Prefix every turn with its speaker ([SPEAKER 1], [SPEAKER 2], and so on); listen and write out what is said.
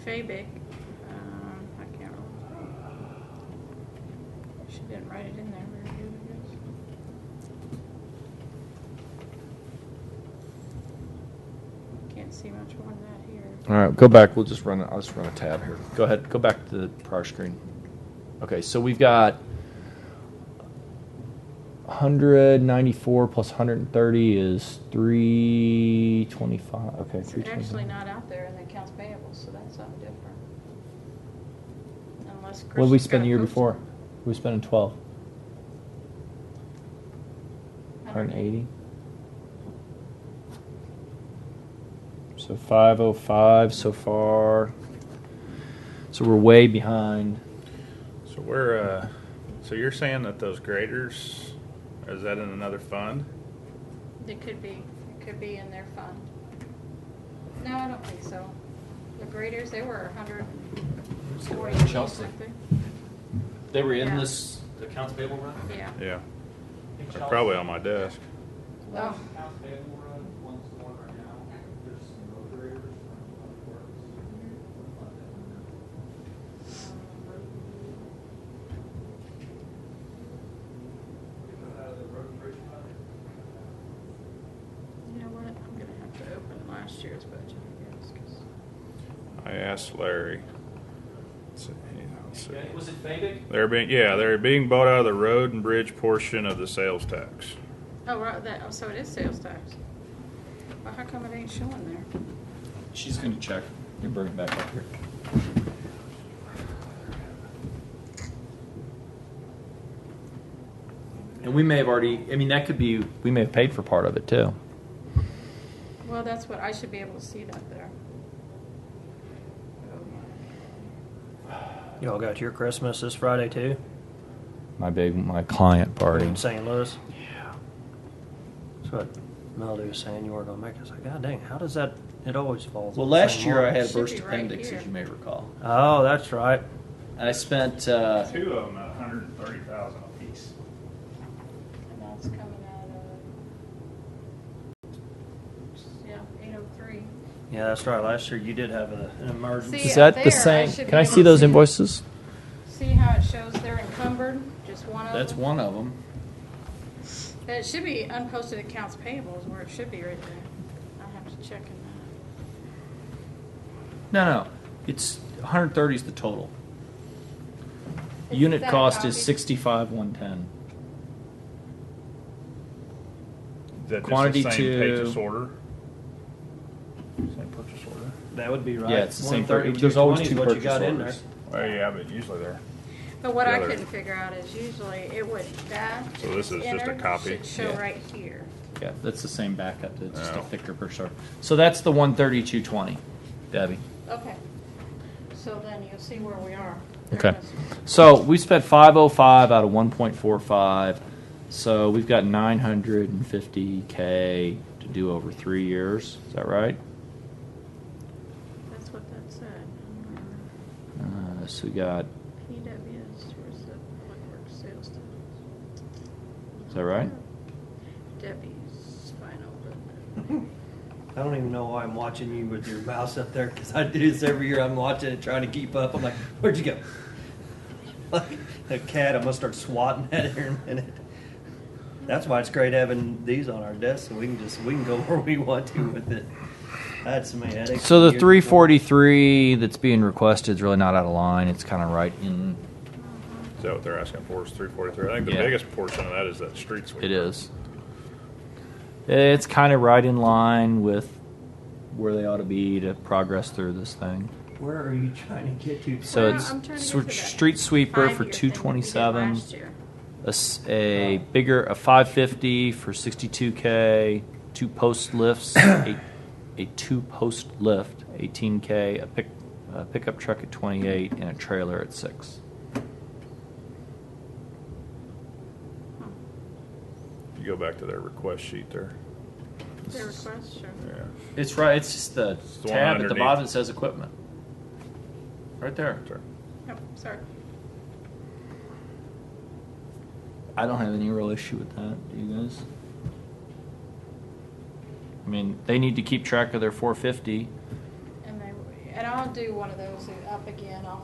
[SPEAKER 1] Fabic, um, I can't remember. She didn't write it in there very good, I guess. Can't see much more than that here.
[SPEAKER 2] All right, go back. We'll just run. I'll just run a tab here. Go ahead. Go back to the prior screen. Okay, so we've got 194 plus 130 is 325. Okay,
[SPEAKER 1] It's
[SPEAKER 2] 325.
[SPEAKER 1] actually not out there in the accounts payable, so that's something different. Unless Chris.
[SPEAKER 2] What did we spend the year before? We spent in 12. 180. So 505 so far. So we're way behind.
[SPEAKER 3] So we're, uh, so you're saying that those graders, is that in another fund?
[SPEAKER 1] It could be, it could be in their fund. No, I don't think so. The graders, they were a hundred and forty. or
[SPEAKER 4] Chelsea.
[SPEAKER 1] something.
[SPEAKER 4] They were in
[SPEAKER 1] Yeah.
[SPEAKER 4] this accounts payable run?
[SPEAKER 1] Yeah.
[SPEAKER 3] Yeah, they're probably on my desk.
[SPEAKER 1] Oh.
[SPEAKER 5] Last account payable run, one's the one right now, there's some road graders from Public Works. What about that one now? They come out of the road and bridge fund.
[SPEAKER 1] You know what? I'm gonna have to open last year's budget, I guess, 'cause-
[SPEAKER 3] I asked Larry. Let's see, let's see.
[SPEAKER 4] Okay, Was it Fabic?
[SPEAKER 3] They're being, yeah, they're being bought out of the road and bridge portion of the sales tax.
[SPEAKER 1] oh, right, that, oh, so it is sales tax. Well, how come it ain't showing there?
[SPEAKER 2] She's going to check. You bring it back up here. And we may have already, I mean, that could be, we may have paid for part of it too.
[SPEAKER 1] Well, that's what, I should be able to see that there.
[SPEAKER 6] Y'all got your Christmas this Friday too?
[SPEAKER 2] My big, my client party.
[SPEAKER 6] In St. Louis? Yeah. That's what Melody was saying you were gonna make. I was like, God dang, how does that, it always falls.
[SPEAKER 4] Well,
[SPEAKER 6] on the same
[SPEAKER 4] last year I
[SPEAKER 6] month."
[SPEAKER 4] had a
[SPEAKER 1] Should be
[SPEAKER 4] burst
[SPEAKER 1] right
[SPEAKER 4] appendix,
[SPEAKER 1] here.
[SPEAKER 4] as you may recall.
[SPEAKER 6] Oh, that's right.
[SPEAKER 4] And I spent, uh,
[SPEAKER 3] Two of them at a hundred and thirty thousand apiece.
[SPEAKER 1] And that's coming out of, yeah, eight oh three.
[SPEAKER 6] Yeah, that's right. Last year you did have a- an emergency.
[SPEAKER 1] See,
[SPEAKER 2] Is that
[SPEAKER 1] up
[SPEAKER 2] the
[SPEAKER 1] there, I
[SPEAKER 2] same?
[SPEAKER 1] should
[SPEAKER 2] Can I
[SPEAKER 1] be able
[SPEAKER 2] see
[SPEAKER 1] to
[SPEAKER 2] those
[SPEAKER 1] see it.
[SPEAKER 2] invoices?
[SPEAKER 1] See how it shows they're encumbered, just one of them?
[SPEAKER 4] that's one of them.
[SPEAKER 1] And It should be unposted accounts payable is where it should be right there. I have to check in that.
[SPEAKER 4] No, no, it's 130 is the total.
[SPEAKER 1] Is
[SPEAKER 4] Unit
[SPEAKER 1] that a
[SPEAKER 4] cost is
[SPEAKER 1] copy?
[SPEAKER 4] 65, 110.
[SPEAKER 3] Is that just
[SPEAKER 4] Quantity
[SPEAKER 3] the same
[SPEAKER 4] two.
[SPEAKER 3] purchase order? Same purchase order?
[SPEAKER 6] That would be right.
[SPEAKER 4] Yeah, it's the same. per-
[SPEAKER 6] 132,
[SPEAKER 4] There's always
[SPEAKER 6] 20 is
[SPEAKER 4] two
[SPEAKER 6] what you
[SPEAKER 4] purchase
[SPEAKER 6] got in
[SPEAKER 4] orders.
[SPEAKER 3] Well, yeah, but usually they're,
[SPEAKER 1] But what I
[SPEAKER 3] The other-
[SPEAKER 1] couldn't figure out is usually it would, that.
[SPEAKER 3] So this is just a
[SPEAKER 1] entered
[SPEAKER 3] copy?
[SPEAKER 1] Should show
[SPEAKER 4] Yeah.
[SPEAKER 1] right here.
[SPEAKER 4] Yeah, that's the same backup. It's just a
[SPEAKER 3] Oh.
[SPEAKER 4] thicker per short. So that's the 132.20, Debbie.
[SPEAKER 1] Okay. So then you'll see where we are. There
[SPEAKER 2] Okay.
[SPEAKER 1] it is.
[SPEAKER 2] So we spent 505 out of 1.45. So we've got 950K to do over three years. Is that right?
[SPEAKER 1] That's what that said.
[SPEAKER 2] Uh, so we got,
[SPEAKER 1] PWS, where's the public works sales tax?
[SPEAKER 2] Is that right?
[SPEAKER 1] Debbie's final.
[SPEAKER 6] I don't even know why I'm watching you with your mouse up there because I do this every year. I'm watching it, trying to keep up. I'm like, where'd you go? Like a cat, I'm gonna start swatting at it here in a minute. That's why it's great having these on our desk, so we can just we can go where we want to with it. That's me. That takes
[SPEAKER 2] so
[SPEAKER 6] me
[SPEAKER 2] the
[SPEAKER 6] years before.
[SPEAKER 2] 343 that's being requested is really not out of line. It's kind of right in,
[SPEAKER 3] is that what they're asking for is three forty-three? I think the
[SPEAKER 2] Yeah.
[SPEAKER 3] biggest portion of that is that street sweeper.
[SPEAKER 2] it is. It's kind of right in line with where they ought to be to progress through this thing.
[SPEAKER 6] Where are you trying to get to?
[SPEAKER 2] So
[SPEAKER 1] Well,
[SPEAKER 2] it's
[SPEAKER 1] I'm trying to get
[SPEAKER 2] sw-
[SPEAKER 1] to that
[SPEAKER 2] street sweeper
[SPEAKER 1] five-year thing that we
[SPEAKER 2] for
[SPEAKER 1] did
[SPEAKER 2] 227.
[SPEAKER 1] last year.
[SPEAKER 2] a, s- a bigger a 550 for 62k two post lifts a, a two post lift 18k a pick a pickup truck at 28 and a trailer at 6
[SPEAKER 3] You go back to their request sheet there.
[SPEAKER 1] Their request, sure.
[SPEAKER 3] Yeah.
[SPEAKER 4] It's right. It's just the tab
[SPEAKER 3] the one
[SPEAKER 4] at the
[SPEAKER 3] underneath.
[SPEAKER 4] bottom that says equipment. Right there.
[SPEAKER 3] Sorry.
[SPEAKER 1] Yep, sorry.
[SPEAKER 2] i don't have any real issue with that do you guys i mean they need to keep track of their 450
[SPEAKER 1] And they, and I'll do one of those up again, I'll